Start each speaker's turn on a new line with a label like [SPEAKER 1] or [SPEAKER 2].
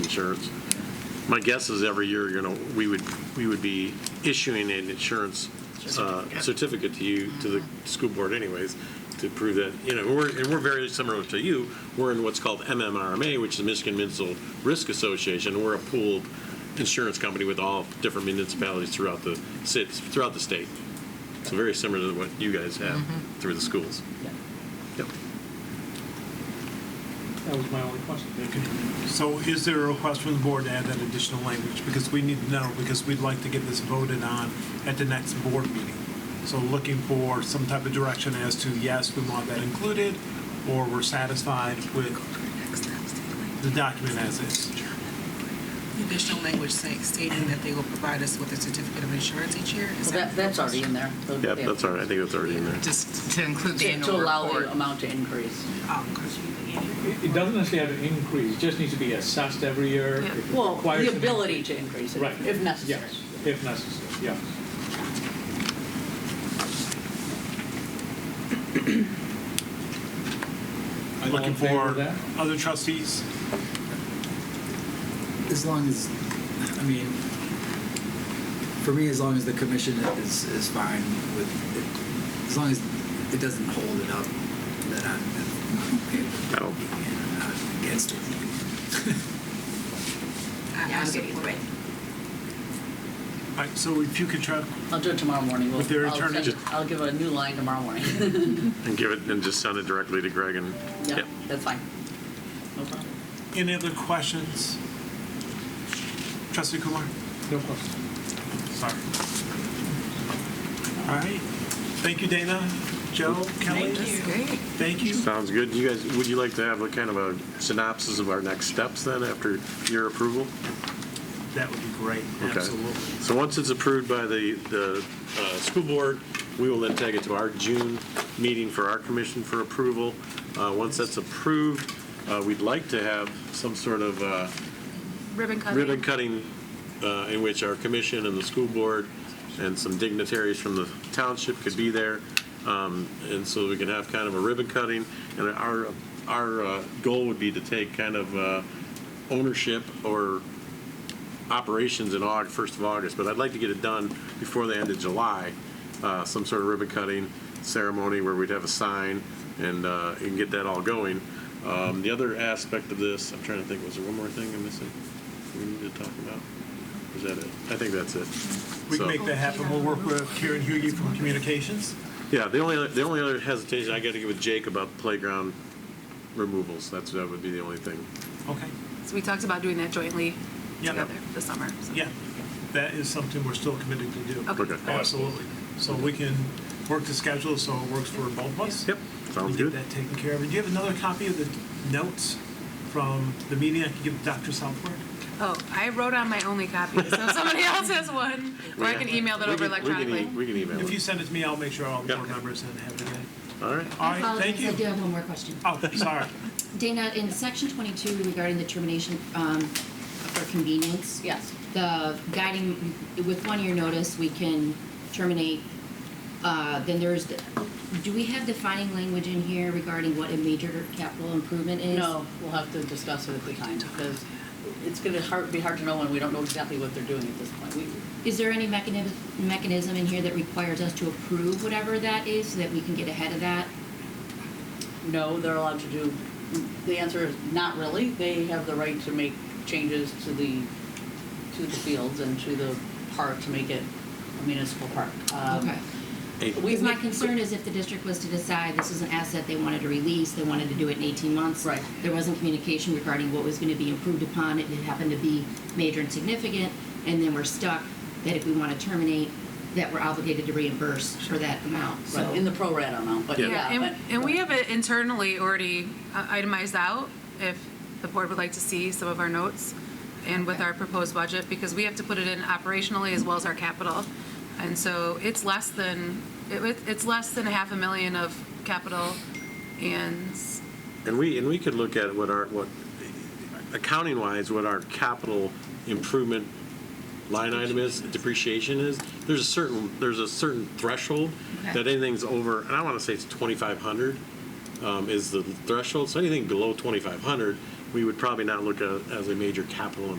[SPEAKER 1] insurance. My guess is every year, you know, we would, we would be issuing an insurance uh, certificate to you, to the school board anyways, to prove that, you know, we're, and we're very similar to you. We're in what's called MMRMA, which is the Michigan Municipal Risk Association. We're a pooled insurance company with all different municipalities throughout the cities, throughout the state. So very similar to what you guys have through the schools. Yep.
[SPEAKER 2] That was my only question.
[SPEAKER 3] Okay. So is there a request from the board to add that additional language? Because we need to know, because we'd like to get this voted on at the next board meeting. So looking for some type of direction as to, yes, we want that included, or we're satisfied with the document as is.
[SPEAKER 4] Additional language saying- stating that they will provide us with a certificate of insurance each year? Is
[SPEAKER 5] Well, that, that's already in there. So,
[SPEAKER 1] Yep,
[SPEAKER 5] yeah.
[SPEAKER 1] that's all right. I think that's already in there.
[SPEAKER 6] Just to include the
[SPEAKER 5] To to
[SPEAKER 6] annual
[SPEAKER 5] allow the
[SPEAKER 6] report.
[SPEAKER 5] amount to increase.
[SPEAKER 4] Oh, okay.
[SPEAKER 2] It it doesn't necessarily have an increase, it just needs to be assessed every year.
[SPEAKER 6] Yeah.
[SPEAKER 2] If it
[SPEAKER 5] Well,
[SPEAKER 2] requires
[SPEAKER 5] the
[SPEAKER 2] an
[SPEAKER 5] ability to increase it,
[SPEAKER 2] Right.
[SPEAKER 5] if necessary.
[SPEAKER 2] Yes, if necessary, yes.
[SPEAKER 3] I'm
[SPEAKER 2] All in
[SPEAKER 3] Looking
[SPEAKER 2] favor
[SPEAKER 3] for
[SPEAKER 2] of that?
[SPEAKER 3] other trustees.
[SPEAKER 7] As long as, I mean, for me, as long as the commission is, is fine with it, as long as it doesn't hold it up, then I'm, I'm okay with it.
[SPEAKER 1] I don't-
[SPEAKER 7] And I'm not uh, against it.
[SPEAKER 4] I- I support it.
[SPEAKER 3] All right, so if you could try,
[SPEAKER 5] I'll do it tomorrow morning. We'll-
[SPEAKER 3] With their
[SPEAKER 5] I'll
[SPEAKER 3] attorney,
[SPEAKER 5] send-
[SPEAKER 3] just-
[SPEAKER 5] I'll give a new line tomorrow morning.
[SPEAKER 1] And give it, and just send it directly to Greg and,
[SPEAKER 5] Yeah,
[SPEAKER 1] yeah.
[SPEAKER 5] that's fine. No problem.
[SPEAKER 3] any other questions? Trustee Kumar?
[SPEAKER 2] No question.
[SPEAKER 3] Sorry. All right. Thank you, Dana, Joe, Kelly.
[SPEAKER 4] Thank you.
[SPEAKER 6] Great.
[SPEAKER 3] Thank you.
[SPEAKER 1] Sounds good. You guys, would you like to have a kind of a synopsis of our next steps then after your approval?
[SPEAKER 3] That would be great,
[SPEAKER 1] Okay.
[SPEAKER 3] absolutely.
[SPEAKER 1] So once it's approved by the, the uh, school board, we will then take it to our June meeting for our commission for approval. Uh, Once that's approved, uh, we'd like to have some sort of uh,
[SPEAKER 6] Ribbon cutting.
[SPEAKER 1] ribbon cutting uh, in which our commission and the school board and some dignitaries from the township could be there. Um, And so we can have kind of a ribbon cutting. And our, our uh, goal would be to take kind of uh, ownership or operations in August, first of August, but I'd like to get it done before the end of July, uh, some sort of ribbon cutting ceremony where we'd have a sign and, uh, and get that all going. Um, the other aspect of this, I'm trying to think, was there one more thing I'm missing we need to talk about? Or Is that it? I think that's it.
[SPEAKER 3] We
[SPEAKER 1] So-
[SPEAKER 3] can make that happen. We'll work with Karen Hughie from Communications.
[SPEAKER 1] Yeah, the only, the only other hesitation I gotta give with Jake about playground removals, that's, that would be the only thing.
[SPEAKER 3] Okay.
[SPEAKER 6] So we talked about doing that jointly
[SPEAKER 3] Yeah.
[SPEAKER 6] together this summer. so.
[SPEAKER 3] Yeah, that is something we're still committed to do.
[SPEAKER 6] Okay.
[SPEAKER 1] Okay.
[SPEAKER 3] Absolutely. So we can work the schedule so it works for both of us.
[SPEAKER 1] Yep,
[SPEAKER 3] We
[SPEAKER 1] sounds
[SPEAKER 3] get
[SPEAKER 1] good.
[SPEAKER 3] that taken care of. Do you have another copy of the notes from the meeting I can give Dr. Southward?
[SPEAKER 6] Oh, I wrote on my only copy, so if somebody else has one, or I can email that
[SPEAKER 1] We
[SPEAKER 6] over
[SPEAKER 1] can- we can e-
[SPEAKER 6] electronically.
[SPEAKER 1] We can email
[SPEAKER 3] If you
[SPEAKER 1] it.
[SPEAKER 3] send it to me, I'll make sure all the board
[SPEAKER 1] Yeah.
[SPEAKER 3] members and have it. in.
[SPEAKER 1] All right.
[SPEAKER 3] All right, thank
[SPEAKER 8] Apologies, I do
[SPEAKER 3] you.
[SPEAKER 8] have one more question.
[SPEAKER 3] Oh, sorry.
[SPEAKER 8] Dana, in section 22 regarding the termination um, for convenience,
[SPEAKER 5] Yes.
[SPEAKER 8] the guiding, with one-year notice, we can terminate, uh, then there's, the- do we have defining language in here regarding what a major capital improvement is?
[SPEAKER 5] No, we'll have to discuss it at the time, because it's going to be hard to know when we don't know exactly what they're doing at this point. We-
[SPEAKER 8] Is there any mechanism, mechanism in here that requires us to approve whatever that is, so that we can get ahead of that?
[SPEAKER 5] No, they're allowed to do, the answer is not really. They have the right to make changes to the, to the fields and to the park to make it a municipal park. Um,
[SPEAKER 8] Okay.
[SPEAKER 1] Hey,
[SPEAKER 5] we-
[SPEAKER 8] Because my
[SPEAKER 5] we-
[SPEAKER 8] concern is if the district was to decide this is an asset they wanted to release, they wanted to do it in 18 months.
[SPEAKER 5] Right.
[SPEAKER 8] There wasn't communication regarding what was going to be improved upon. It happened to be major and significant, and then we're stuck that if we want to terminate, that we're obligated to reimburse for that amount. So
[SPEAKER 5] Right, in the pro rata amount, but
[SPEAKER 1] Yeah.
[SPEAKER 5] yeah.
[SPEAKER 6] Yeah, and,
[SPEAKER 5] but-
[SPEAKER 6] and we have it internally already uh, itemized out, if the board would like to see some of our notes and with our proposed budget, because we have to put it in operationally as well as our capital. And so it's less than, it, it- it's less than a half a million of capital and
[SPEAKER 1] And we, and we could look at what our, what, accounting-wise, what our capital improvement line item is, depreciation is. There's a certain, there's a certain threshold that anything's over, and I want to say it's 2,500 um, is the threshold. So anything below 2,500, we would probably not look at it as a major capital